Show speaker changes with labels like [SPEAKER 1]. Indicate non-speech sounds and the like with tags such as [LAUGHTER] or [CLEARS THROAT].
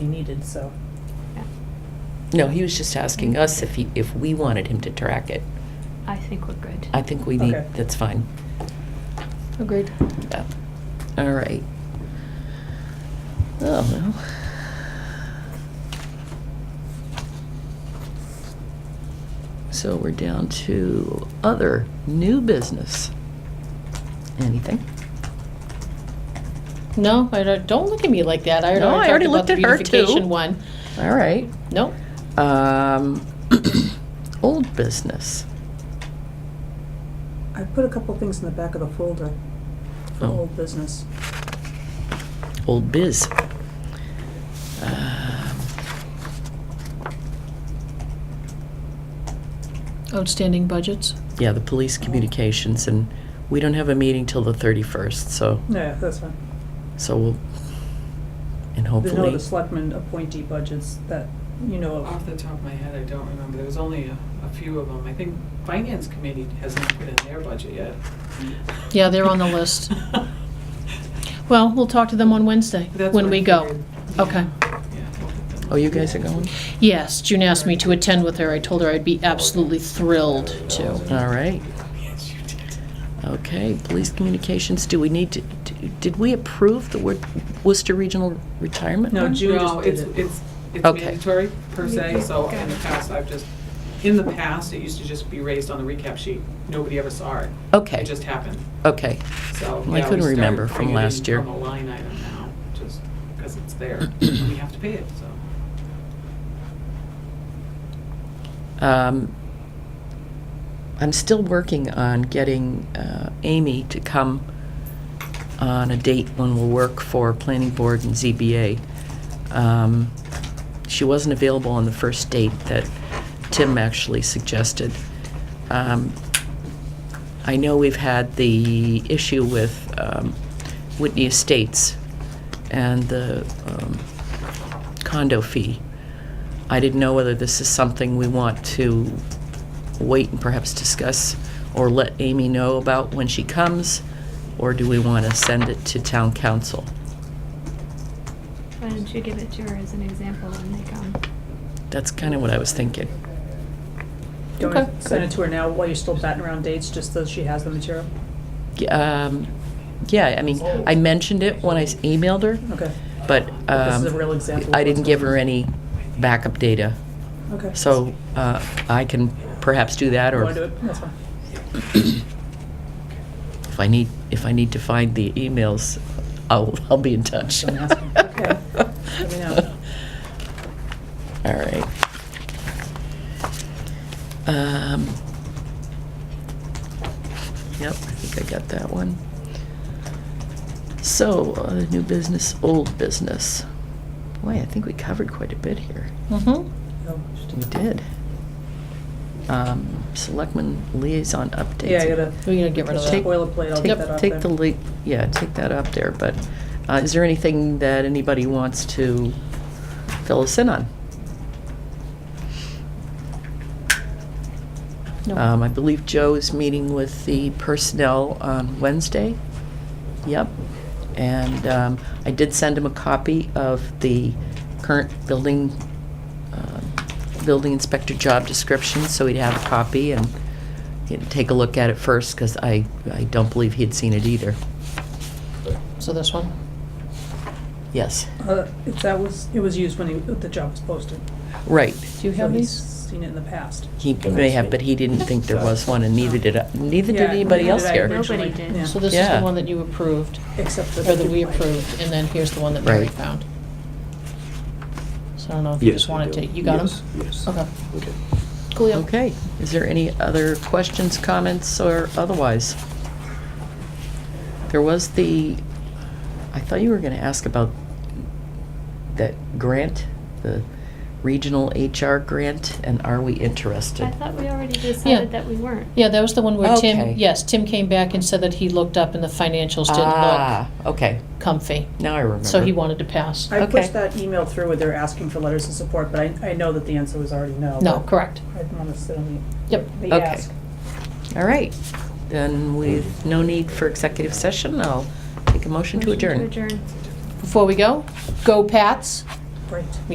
[SPEAKER 1] he needed, so.
[SPEAKER 2] No, he was just asking us if he, if we wanted him to track it.
[SPEAKER 3] I think we're good.
[SPEAKER 2] I think we need,
[SPEAKER 1] Okay.
[SPEAKER 2] that's fine.
[SPEAKER 3] Agreed.
[SPEAKER 2] Yeah. All right. Oh, well. So we're down to other new business. Anything?
[SPEAKER 4] No, I don't, don't look at me like that. I already,
[SPEAKER 2] No, I
[SPEAKER 4] talked
[SPEAKER 2] already
[SPEAKER 4] about
[SPEAKER 2] looked
[SPEAKER 4] the
[SPEAKER 2] at her, too.
[SPEAKER 4] beautification one.
[SPEAKER 2] All right.
[SPEAKER 4] Nope.
[SPEAKER 2] Um, [CLEARS THROAT] old business.
[SPEAKER 1] I put a couple things in the back of the folder for
[SPEAKER 2] Oh.
[SPEAKER 1] old business.
[SPEAKER 2] old biz. Um,
[SPEAKER 4] Outstanding budgets.
[SPEAKER 2] Yeah, the police communications, and we don't have a meeting till the 31st, so,
[SPEAKER 1] Yeah, that's fine.
[SPEAKER 2] so we'll, and
[SPEAKER 1] There's no
[SPEAKER 2] hopefully,
[SPEAKER 1] other selectmen appointee budgets that, you know, of.
[SPEAKER 5] Off the top of my head, I don't remember. There was only a, a few of them. I think Finance Committee has not put in their budget yet.
[SPEAKER 4] Yeah, they're on the
[SPEAKER 5] [LAUGHS]
[SPEAKER 4] list. Well, we'll talk to them on Wednesday
[SPEAKER 5] That's
[SPEAKER 4] when
[SPEAKER 5] what I
[SPEAKER 4] we go.
[SPEAKER 5] figured.
[SPEAKER 4] Okay.
[SPEAKER 5] Yeah, we'll put them
[SPEAKER 2] oh, you
[SPEAKER 5] on.
[SPEAKER 2] guys are going?
[SPEAKER 4] Yes, June asked me to attend with her. I told her I'd be absolutely thrilled to.
[SPEAKER 2] All right,
[SPEAKER 5] Yes, you did.
[SPEAKER 2] okay, police communications, do we need to, do- did we approve the Wor- Worcester Regional Retirement?
[SPEAKER 1] No,
[SPEAKER 2] one?
[SPEAKER 1] June just
[SPEAKER 5] No,
[SPEAKER 1] did
[SPEAKER 5] it's,
[SPEAKER 1] it.
[SPEAKER 5] it's, it's
[SPEAKER 2] Okay.
[SPEAKER 5] mandatory per se, so
[SPEAKER 3] Okay.
[SPEAKER 5] in the past, I've just, in the past, it used to just be raised on the recap sheet. Nobody ever saw it.
[SPEAKER 2] Okay.
[SPEAKER 5] It just happened,
[SPEAKER 2] Okay,
[SPEAKER 5] so.
[SPEAKER 2] I
[SPEAKER 5] yeah, we
[SPEAKER 2] couldn't remember
[SPEAKER 5] started
[SPEAKER 2] from
[SPEAKER 5] bringing it
[SPEAKER 2] last
[SPEAKER 5] in
[SPEAKER 2] year.
[SPEAKER 5] From a line item now, just because it's there,
[SPEAKER 2] [CLEARS THROAT]
[SPEAKER 5] and we have to pay it, so.
[SPEAKER 2] um, I'm still working on getting, uh, Amy to come on a date when we'll work for planning board and ZBA. Um, She wasn't available on the first date that Tim actually suggested. Um, I know we've had the issue with um, Whitney Estates and the um, condo fee. I didn't know whether this is something we want to wait and perhaps discuss or let Amy know about when she comes, or do we want to send it to town council?
[SPEAKER 3] Why don't you give it to her as an example um, when they come?
[SPEAKER 2] That's kind of what I was thinking.
[SPEAKER 1] Do you want
[SPEAKER 4] Okay.
[SPEAKER 1] to send it to her now while you're still batting around dates, just so she has the material?
[SPEAKER 2] Y- um, Yeah, I mean, I mentioned it when I s- emailed her,
[SPEAKER 1] Okay,
[SPEAKER 2] but
[SPEAKER 1] This is
[SPEAKER 2] um,
[SPEAKER 1] a real example of
[SPEAKER 2] I didn't
[SPEAKER 1] what's
[SPEAKER 2] give
[SPEAKER 1] going
[SPEAKER 2] her any backup data,
[SPEAKER 1] okay.
[SPEAKER 2] so uh, I can perhaps do that,
[SPEAKER 1] You wanna do
[SPEAKER 2] or
[SPEAKER 1] it? That's fine.
[SPEAKER 2] if I need, if I need to find the emails, I'll, I'll be in touch.
[SPEAKER 1] Don't ask me. Okay. Let me know.
[SPEAKER 2] [LAUGHS] All right. Um, Yep, I think I got that one. So, uh, new business, old business. Boy, I think we covered quite a bit here.
[SPEAKER 4] Mm-hmm.
[SPEAKER 1] No.
[SPEAKER 2] We did. Um, Selectmen liaison updates.
[SPEAKER 1] Yeah, I gotta.
[SPEAKER 4] We're gonna get rid of
[SPEAKER 2] Take-
[SPEAKER 4] that.
[SPEAKER 1] Boilerplate, I'll
[SPEAKER 2] Take-
[SPEAKER 1] get that off
[SPEAKER 2] Take the,
[SPEAKER 1] there.
[SPEAKER 2] lea- yeah, take that up there, but uh, is there anything that anybody wants to fill us in on?
[SPEAKER 4] No.
[SPEAKER 2] Um, I believe Joe is meeting with the personnel on Wednesday. Yep. And um, I did send him a copy of the current building, um, building inspector job description, so he'd have a copy and he'd take a look at it first, because I, I don't believe he'd seen it either.
[SPEAKER 4] So this one.
[SPEAKER 2] Yes,
[SPEAKER 1] Uh, if that was, it was used when he, the job was posted.
[SPEAKER 2] right.
[SPEAKER 4] Do
[SPEAKER 1] So
[SPEAKER 4] you have
[SPEAKER 1] he's
[SPEAKER 4] these?
[SPEAKER 1] Seen it in the past.
[SPEAKER 2] He may have, but he didn't think there was one, and neither did, I- neither
[SPEAKER 1] Yeah,
[SPEAKER 2] did anybody
[SPEAKER 1] neither
[SPEAKER 2] else
[SPEAKER 1] did I
[SPEAKER 2] here.
[SPEAKER 3] Nobody
[SPEAKER 1] originally.
[SPEAKER 3] did.
[SPEAKER 1] Yeah.
[SPEAKER 4] So this is
[SPEAKER 2] Yeah.
[SPEAKER 4] the one that you approved,
[SPEAKER 1] Except for.
[SPEAKER 4] or
[SPEAKER 1] the
[SPEAKER 4] that we
[SPEAKER 1] duplex.
[SPEAKER 4] approved, and then here's the one that Mary
[SPEAKER 2] Right.
[SPEAKER 4] found. So I don't know if you just wanted to. You got them.
[SPEAKER 6] Yes.
[SPEAKER 4] Okay.
[SPEAKER 6] Okay.
[SPEAKER 4] Cool. yeah.
[SPEAKER 2] Okay, is there any other questions, comments, or otherwise? There was the, I thought you were gonna ask about that grant, the regional HR grant, and are we interested?
[SPEAKER 3] I thought we already decided that we weren't.
[SPEAKER 4] Yeah, that was the one where
[SPEAKER 2] Okay.
[SPEAKER 4] Tim, yes, Tim came back and said that he looked up and the financials didn't
[SPEAKER 2] Ah, okay,
[SPEAKER 4] look comfy.
[SPEAKER 2] now I remember.
[SPEAKER 4] So he wanted to pass.
[SPEAKER 1] I
[SPEAKER 2] Okay.
[SPEAKER 1] pushed that email through where they're asking for letters of support, but I, I know that the answer was already no.
[SPEAKER 4] No,
[SPEAKER 1] but
[SPEAKER 4] correct.
[SPEAKER 1] I didn't wanna sit on
[SPEAKER 4] Yep.
[SPEAKER 1] the, the
[SPEAKER 2] Okay.
[SPEAKER 1] ask.
[SPEAKER 2] All right, then with no need for executive session, I'll take a motion to adjourn.
[SPEAKER 3] Motion to adjourn.
[SPEAKER 4] Before we go, go Pats.
[SPEAKER 1] Right.